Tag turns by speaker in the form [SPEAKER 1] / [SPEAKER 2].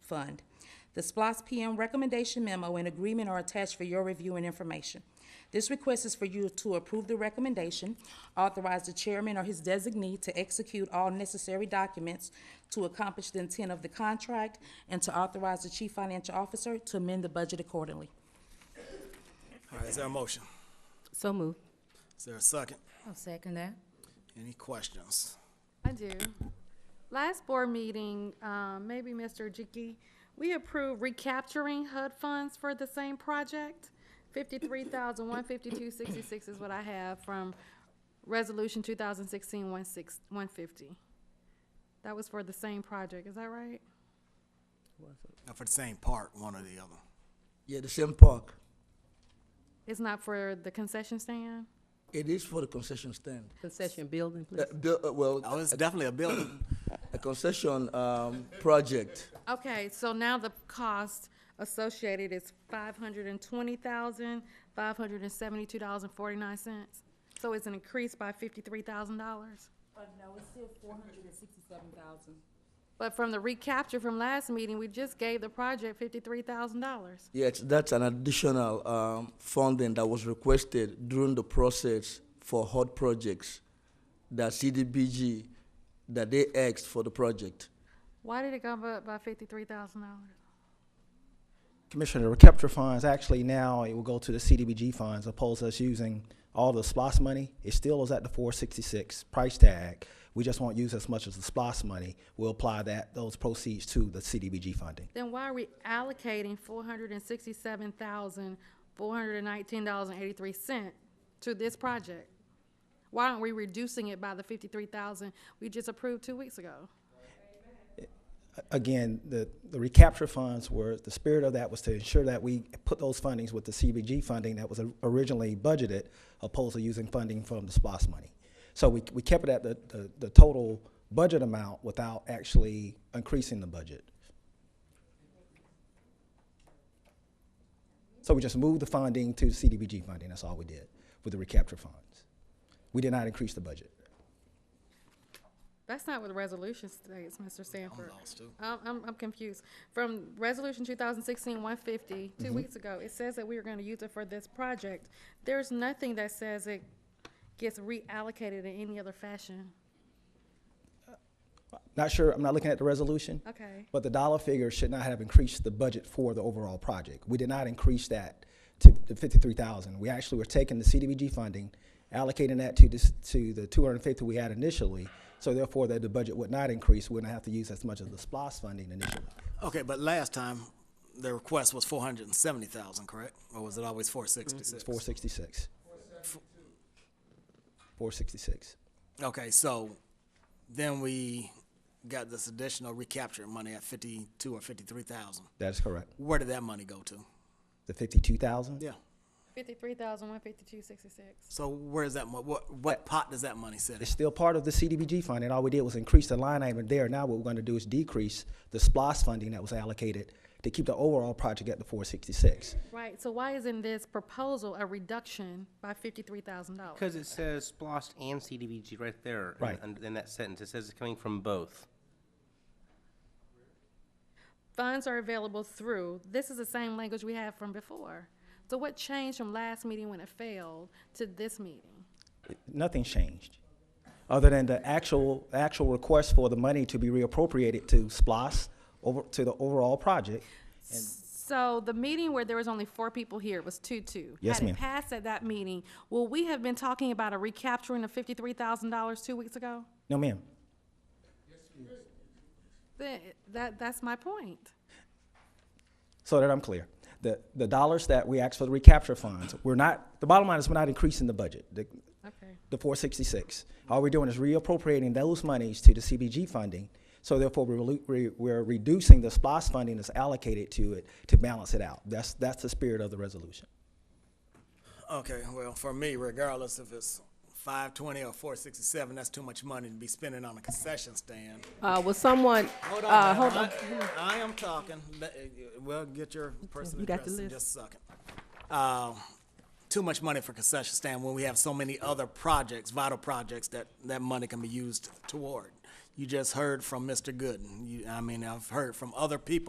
[SPEAKER 1] Fund. The SPOS PM recommendation memo and agreement are attached for your review and information. This request is for you to approve the recommendation, authorize the chairman or his designee to execute all necessary documents to accomplish the intent of the contract, and to authorize the chief financial officer to amend the budget accordingly.
[SPEAKER 2] All right, is there a motion?
[SPEAKER 3] So moved.
[SPEAKER 2] Is there a second?
[SPEAKER 3] I'll second that.
[SPEAKER 2] Any questions?
[SPEAKER 4] I do. Last board meeting, um, maybe Mr. Jiki, we approved recapturing HUD funds for the same project. Fifty-three thousand, one fifty-two, sixty-six is what I have from resolution 2016 one six, one fifty. That was for the same project, is that right?
[SPEAKER 2] Not for the same part, one or the other.
[SPEAKER 5] Yeah, the same park.
[SPEAKER 4] It's not for the concession stand?
[SPEAKER 5] It is for the concession stand.
[SPEAKER 3] Concession building, please.
[SPEAKER 5] Uh, bu- uh, well,
[SPEAKER 2] Oh, it's definitely a building.
[SPEAKER 5] a concession um, project.
[SPEAKER 4] Okay, so now the cost associated is five hundred and twenty thousand, five hundred and seventy-two dollars and forty-nine cents. So it's an increase by fifty-three thousand dollars.
[SPEAKER 1] no, it's still four hundred and sixty-seven thousand.
[SPEAKER 4] But from the recapture from last meeting, we just gave the project fifty-three thousand dollars.
[SPEAKER 5] Yes, that's an additional um, funding that was requested during the process for hot projects that CDBG that they asked for the project.
[SPEAKER 4] Why did it go up by fifty-three thousand dollars?
[SPEAKER 6] Commissioner, the recapture funds, actually now it will go to the CDBG funds opposed to us using all the SPOS money. It still is at the four sixty-six price tag. We just won't use as much as the SPOS money. We'll apply that, those proceeds to the CDBG funding.
[SPEAKER 4] Then why are we allocating four hundred and sixty-seven thousand, four hundred and nineteen dollars and eighty-three cent to this project? Why aren't we reducing it by the fifty-three thousand we just approved two weeks ago?
[SPEAKER 6] again, the, the recapture funds were, the spirit of that was to ensure that we put those fundings with the CBG funding that was originally budgeted, opposed to using funding from the SPOS money. So we, we kept it at the, the, the total budget amount without actually increasing the budget. So we just moved the funding to CDBG funding, that's all we did, with the recapture funds. We did not increase the budget.
[SPEAKER 4] That's not what the resolution states, Mr. Sanford.
[SPEAKER 2] lost, too.
[SPEAKER 4] I'm, I'm, I'm confused. From Resolution 2016 150,
[SPEAKER 2] Mm-hmm.
[SPEAKER 4] two weeks ago, it says that we were gonna use it for this project. There's nothing that says it gets reallocated in any other fashion.
[SPEAKER 6] Not sure, I'm not looking at the resolution.
[SPEAKER 4] Okay.
[SPEAKER 6] But the dollar figure should not have increased the budget for the overall project. We did not increase that to the fifty-three thousand. We actually were taking the CDBG funding, allocating that to this, to the two hundred and fifty we had initially. So therefore, that the budget would not increase, we wouldn't have to use as much of the SPOS funding initially.
[SPEAKER 2] Okay, but last time, the request was four hundred and seventy thousand, correct? Or was it always four sixty-six?
[SPEAKER 6] Four sixty-six. Four sixty-six.
[SPEAKER 2] Okay, so then we got this additional recapture money at fifty-two or fifty-three thousand.
[SPEAKER 6] That is correct.
[SPEAKER 2] Where did that money go to?
[SPEAKER 6] The fifty-two thousand?
[SPEAKER 2] Yeah.
[SPEAKER 4] 53,152.66.
[SPEAKER 2] So where's that mo- what, what pot does that money sit in?
[SPEAKER 6] It's still part of the CDBG funding. All we did was increase the line item there. Now what we're gonna do is decrease the SPOS funding that was allocated to keep the overall project at the four sixty-six.
[SPEAKER 4] Right, so why isn't this proposal a reduction by $53,000?
[SPEAKER 7] Because it says SPOSS and CDBG right there. in-
[SPEAKER 6] Right.
[SPEAKER 7] in- In that sentence, it says it's coming from both.
[SPEAKER 4] Funds are available through, this is the same language we had from before. So what changed from last meeting when it failed to this meeting?
[SPEAKER 6] Nothing's changed, other than the actual, actual request for the money to be reappropriated to SPOS over, to the overall project.
[SPEAKER 4] So the meeting where there was only four people here it was two-two.
[SPEAKER 6] Yes,
[SPEAKER 4] Had it
[SPEAKER 6] ma'am.
[SPEAKER 4] passed at that meeting, will we have been talking about a recapturing of fifty-three thousand dollars two weeks ago?
[SPEAKER 6] No, ma'am.
[SPEAKER 4] That, that, that's my point.
[SPEAKER 6] so that I'm clear. The, the dollars that we asked for the recapture funds, we're not, the bottom line is we're not increasing the budget, the,
[SPEAKER 4] Okay.
[SPEAKER 6] the four sixty-six. All we're doing is reappropriating those monies to the CBG funding, so therefore we're, relu- we- we're reducing the SPOS funding that's allocated to it to balance it out. That's, that's the spirit of the resolution.
[SPEAKER 2] Okay, well, for me, regardless if it's five twenty or four sixty-seven, that's too much money to be spending on a concession stand.
[SPEAKER 3] Uh, will someone,
[SPEAKER 2] Hold on,
[SPEAKER 3] uh,
[SPEAKER 2] now.
[SPEAKER 3] hold on.
[SPEAKER 2] I, I am talking. Let- uh, Well, get your person
[SPEAKER 3] you got
[SPEAKER 2] address
[SPEAKER 3] the
[SPEAKER 2] in
[SPEAKER 3] list.
[SPEAKER 2] just a second. Uh, too much money for concession stand when we have so many other projects, vital projects that that money can be used toward. You just heard from Mr. Gooden. You, I mean, I've heard from other people.